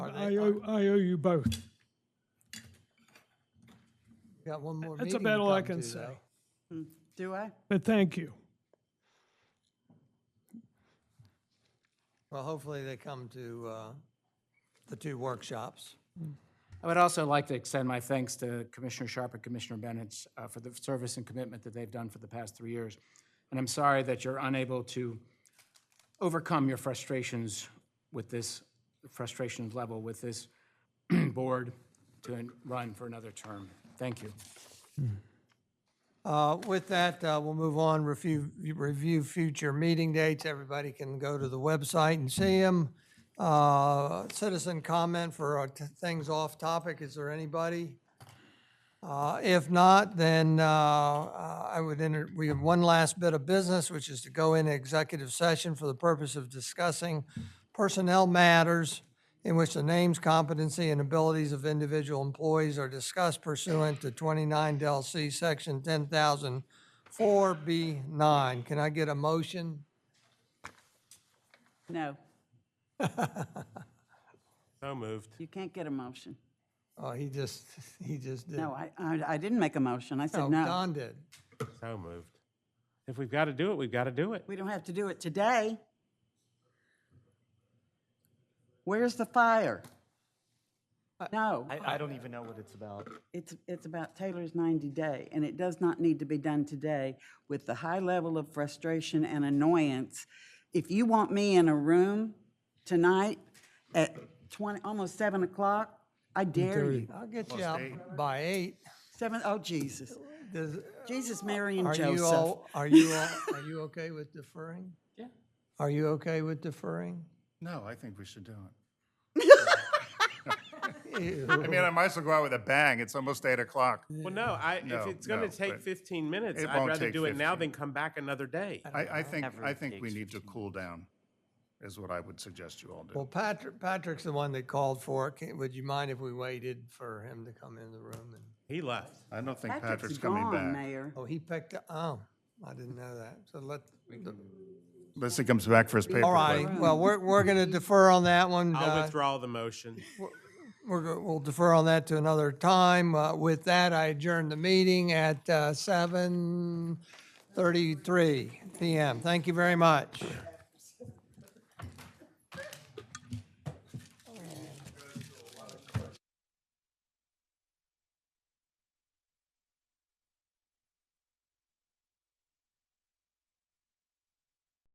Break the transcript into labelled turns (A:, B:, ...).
A: I owe, I owe you both.
B: Got one more
A: That's
B: meeting to
A: about all I
B: come
A: can
B: to,
A: say.
B: though.
C: Do I?
A: But thank you.
B: Well, hopefully they come to uh, the two workshops.
D: I would also like to extend my thanks to Commissioner Sharp and Commissioner Bennett uh, for the service and commitment that they've done for the past three years. And I'm sorry that you're unable to overcome your frustrations with this, frustrations level with this board to run for another term. Thank you.
B: Uh, With that, uh, we'll move on, review, review future meeting dates. Everybody can go to the website and see them. Citizen comment for uh, t- things off topic, is there anybody? Uh, If not, then uh, uh, I would enter, we have one last bit of business, which is to go into executive session for the purpose of discussing personnel matters in which the names, competency, and abilities of individual employees are discussed pursuant to 29 Del C, Section 10,004 B9. Can I get a motion?
C: No,
E: So moved.
C: you can't get a motion.
B: Oh, he just, he just did.
C: No, I, I, I didn't make a motion. I
B: No,
C: said no.
B: Don did.
E: So moved. If we've got to do it, we've got to do it.
C: We don't have to do it today. Where's the fire? No,
F: I, I don't even know what it's about.
C: it's, it's about Taylor's 90 day, and it does not need to be done today with the high level of frustration and annoyance. If you want me in a room tonight at 20, almost 7 o'clock, I dare you.
B: I'll get you out by eight.
C: 7, oh Jesus.
B: Does-
C: Jesus, Mary, and
B: Are you
C: Joseph.
B: all, are you all, are you okay with deferring? Yeah. Are you okay with deferring?
G: No, I think we should do it.
B: Ew.
G: I mean, I might as well go out with a bang. It's almost eight o'clock.
E: Well, no, I, if
G: No,
E: it's going
G: no,
E: to take
G: but
E: 15 minutes,
G: it
E: I'd
G: won't
E: rather
G: take
E: do it now than
G: 15.
E: come back another day.
G: I, I think, I
F: Average
G: think we
F: takes
G: need to cool down, is what I would suggest you all
B: Well,
G: do.
B: Patrick, Patrick's the one that called for it. Can- Would you mind if we waited for him to come in the room? and-
E: He left.
G: I don't think
C: Patrick's
G: Patrick's coming
C: gone,
G: back.
C: Mayor.
B: Oh, he picked, up- oh, I didn't know that. So let,
G: Unless he comes back for his paper
B: all
G: plate.
B: right, well, we're, we're going to defer on that one.
E: I'll
B: uh,
E: withdraw the motion.
B: We're, go- we'll defer on that to another time. Uh, With that, I adjourn the meeting at uh, 7:33 PM. Thank you very much.